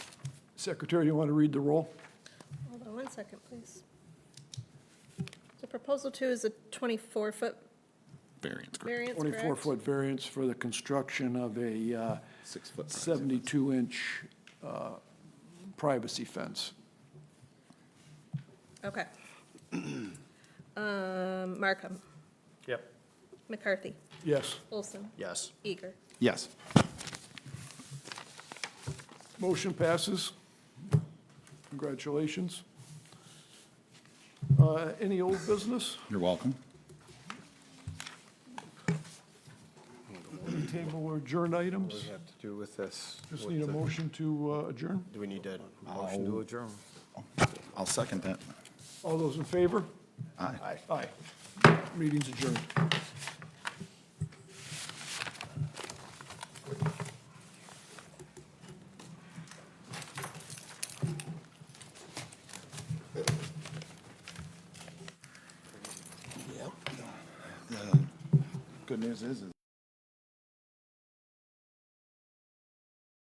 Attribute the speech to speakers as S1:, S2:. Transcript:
S1: Secretary, you want to read the roll?
S2: Hold on one second, please. So proposal two is a 24-foot
S3: Variance, correct.
S2: variance, correct?
S1: 24-foot variance for the construction of a uh,
S3: Six foot.
S1: 72-inch uh, privacy fence.
S2: Okay. Um, Markham,
S4: Yep.
S2: McCarthy,
S1: Yes.
S2: Olson,
S4: Yes.
S2: Eager.
S3: Yes.
S1: Motion passes. Congratulations. Uh, Any old business?
S3: You're welcome.
S1: Table or adjourn
S4: What does
S1: items?
S4: it have to do with this?
S1: Just
S4: What's
S1: need a
S4: the-
S1: motion to uh, adjourn.
S4: Do we need a motion to adjourn?
S3: I'll second that.
S1: All those in favor?
S3: Aye.
S1: Aye. Meeting's adjourned.
S3: Good news is, is